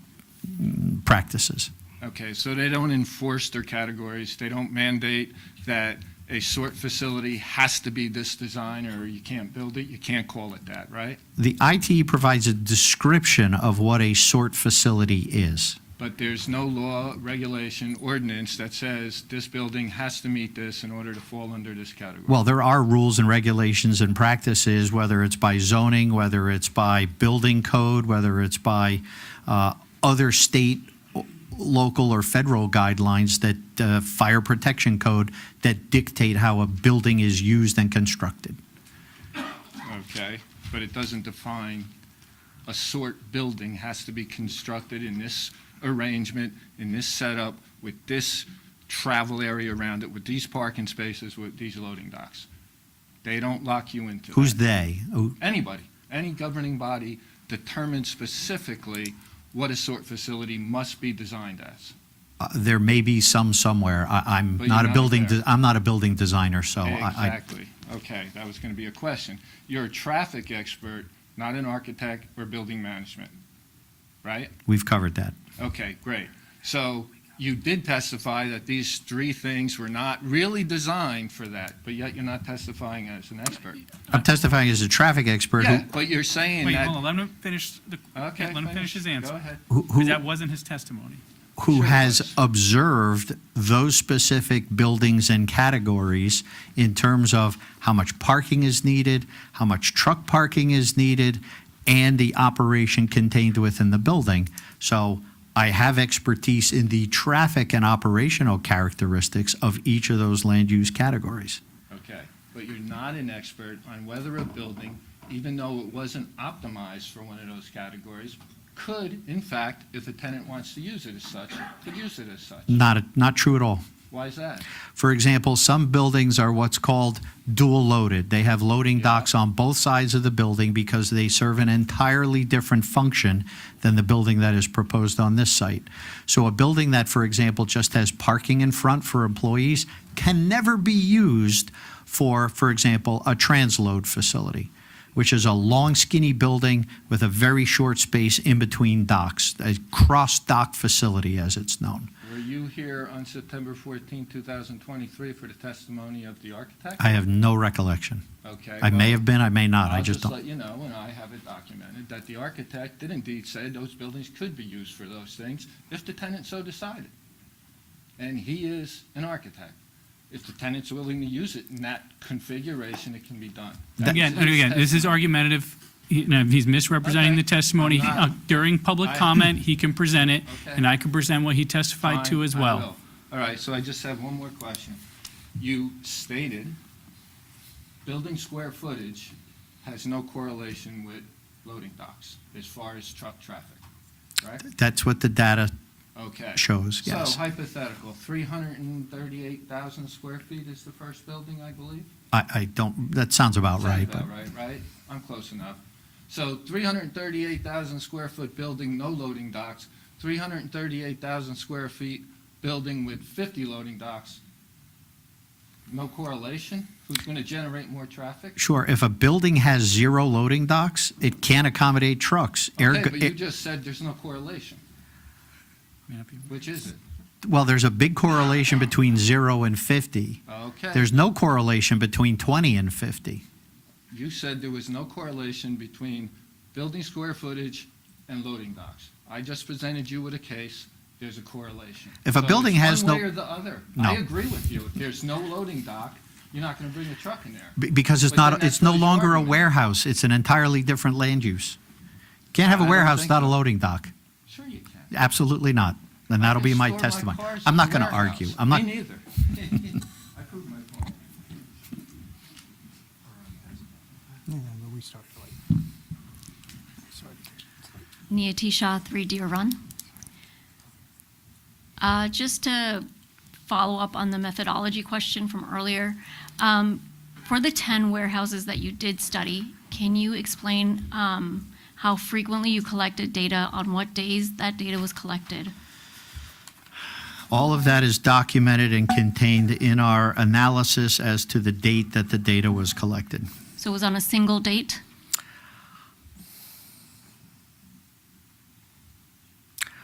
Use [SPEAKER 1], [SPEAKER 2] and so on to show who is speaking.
[SPEAKER 1] practices.
[SPEAKER 2] Okay, so they don't enforce their categories, they don't mandate that a sort facility has to be this design, or you can't build it, you can't call it that, right?
[SPEAKER 1] The ITE provides a description of what a sort facility is.
[SPEAKER 2] But there's no law, regulation, ordinance that says this building has to meet this in order to fall under this category.
[SPEAKER 1] Well, there are rules and regulations and practices, whether it's by zoning, whether it's by building code, whether it's by uh, other state, o- local, or federal guidelines that, uh, fire protection code, that dictate how a building is used and constructed.
[SPEAKER 2] Okay, but it doesn't define a sort building has to be constructed in this arrangement, in this setup, with this travel area around it, with these parking spaces, with these loading docks. They don't lock you into that.
[SPEAKER 1] Who's they? Who-
[SPEAKER 2] Anybody, any governing body determines specifically what a sort facility must be designed as.
[SPEAKER 1] uh, There may be some somewhere. I- I'm
[SPEAKER 2] But
[SPEAKER 1] not
[SPEAKER 2] you're
[SPEAKER 1] a
[SPEAKER 2] not
[SPEAKER 1] building,
[SPEAKER 2] there.
[SPEAKER 1] de- I'm not a building designer, so Oh, I- I,
[SPEAKER 2] Exactly. Okay, that was going to be a question. You're a traffic expert, not an architect or building management, right?
[SPEAKER 1] we've covered that.
[SPEAKER 2] Okay, great. So you did testify that these three things were not really designed for that, but yet you're not testifying as an expert.
[SPEAKER 1] I'm testifying as a traffic expert who-
[SPEAKER 2] Yeah, but you're saying
[SPEAKER 3] Wait,
[SPEAKER 2] that.
[SPEAKER 3] hold on, let him finish the,
[SPEAKER 2] Okay,
[SPEAKER 3] let him finish his
[SPEAKER 2] Go
[SPEAKER 3] answer.
[SPEAKER 2] ahead.
[SPEAKER 1] who,
[SPEAKER 3] Because
[SPEAKER 1] who
[SPEAKER 3] that wasn't his testimony.
[SPEAKER 1] who
[SPEAKER 2] Sure
[SPEAKER 1] has
[SPEAKER 2] does.
[SPEAKER 1] observed those specific buildings and categories in terms of how much parking is needed, how much truck parking is needed, and the operation contained within the building. So I have expertise in the traffic and operational characteristics of each of those land use categories.
[SPEAKER 2] Okay, but you're not an expert on whether a building, even though it wasn't optimized for one of those categories, could, in fact, if a tenant wants to use it as such, could use it as such.
[SPEAKER 1] Not, not true at all.
[SPEAKER 2] Why is that?
[SPEAKER 1] For example, some buildings are what's called dual loaded. They have loading
[SPEAKER 2] Yeah.
[SPEAKER 1] docks on both sides of the building because they serve an entirely different function than the building that is proposed on this site. So a building that, for example, just has parking in front for employees can never be used for, for example, a transload facility, which is a long skinny building with a very short space in between docks, a cross dock facility as it's known.
[SPEAKER 2] Were you here on September 14, 2023 for the testimony of the architect?
[SPEAKER 1] I have no recollection.
[SPEAKER 2] Okay.
[SPEAKER 1] I
[SPEAKER 2] well-
[SPEAKER 1] may have been, I may not, I
[SPEAKER 2] I'll
[SPEAKER 1] just
[SPEAKER 2] just
[SPEAKER 1] don't.
[SPEAKER 2] let you know, and I have it documented, that the architect did indeed say those buildings could be used for those things if the tenant so decided. And he is an architect. If the tenant's willing to use it in that configuration, it can be done. That
[SPEAKER 3] Again,
[SPEAKER 2] was his
[SPEAKER 3] again, this is
[SPEAKER 2] testimony.
[SPEAKER 3] argumentative, He- no, he's misrepresenting
[SPEAKER 2] Okay.
[SPEAKER 3] the testimony.
[SPEAKER 2] I'm not.
[SPEAKER 3] Uh, During public
[SPEAKER 2] I-
[SPEAKER 3] comment, he can present it,
[SPEAKER 2] Okay.
[SPEAKER 3] and I can present what he testified to
[SPEAKER 2] Fine,
[SPEAKER 3] as
[SPEAKER 2] I
[SPEAKER 3] well.
[SPEAKER 2] will. All right, so I just have one more question. You stated building square footage has no correlation with loading docks as far as truck traffic, right?
[SPEAKER 1] That's what the data
[SPEAKER 2] Okay.
[SPEAKER 1] shows,
[SPEAKER 2] So
[SPEAKER 1] yes.
[SPEAKER 2] hypothetical, 338,000 square feet is the first building, I believe?
[SPEAKER 1] I, I don't, that sounds about
[SPEAKER 2] Sounds
[SPEAKER 1] right, but
[SPEAKER 2] about right, right? I'm close enough. So 338,000 square foot building, no loading docks, 338,000 square feet building with 50 loading docks, no correlation? Who's going to generate more traffic?
[SPEAKER 1] sure, if a building has zero loading docks, it can't accommodate trucks.
[SPEAKER 2] Okay,
[SPEAKER 1] Ergo-
[SPEAKER 2] but you
[SPEAKER 1] it-
[SPEAKER 2] just said there's no correlation. Which is it?
[SPEAKER 1] Well, there's a big correlation between zero and 50.
[SPEAKER 2] Okay.
[SPEAKER 1] There's no correlation between 20 and 50.
[SPEAKER 2] You said there was no correlation between building square footage and loading docks. I just presented you with a case, there's a correlation.
[SPEAKER 1] If a
[SPEAKER 2] So
[SPEAKER 1] building
[SPEAKER 2] it's
[SPEAKER 1] has no-
[SPEAKER 2] One way or the other. I
[SPEAKER 1] No.
[SPEAKER 2] agree with you. If there's no loading dock, you're not gonna bring a truck in there.
[SPEAKER 1] Be- Because it's
[SPEAKER 2] But then
[SPEAKER 1] not,
[SPEAKER 2] that's
[SPEAKER 1] it's no
[SPEAKER 2] what your
[SPEAKER 1] longer a
[SPEAKER 2] argument is.
[SPEAKER 1] warehouse, it's an entirely different land use. Can't have
[SPEAKER 2] I
[SPEAKER 1] a
[SPEAKER 2] don't
[SPEAKER 1] warehouse
[SPEAKER 2] think
[SPEAKER 1] without a
[SPEAKER 2] so.
[SPEAKER 1] loading dock.
[SPEAKER 2] Sure you can.
[SPEAKER 1] Absolutely not. And that'll
[SPEAKER 2] I
[SPEAKER 1] be
[SPEAKER 2] can
[SPEAKER 1] my
[SPEAKER 2] store
[SPEAKER 1] testimony.
[SPEAKER 2] cars
[SPEAKER 1] I'm
[SPEAKER 2] in
[SPEAKER 1] not
[SPEAKER 2] the
[SPEAKER 1] going to
[SPEAKER 2] warehouse.
[SPEAKER 1] argue. I'm not,
[SPEAKER 2] Me neither. I proved my point.
[SPEAKER 4] Yeah, but we started late.
[SPEAKER 5] Nia Shaw, 3 Deer Run. Uh, Just to follow up on the methodology question from earlier, um, for the 10 warehouses that you did study, can you explain um, how frequently you collected data, on what days that data was collected?
[SPEAKER 1] all of that is documented and contained in our analysis as to the date that the data was collected.
[SPEAKER 5] So it was on a single date?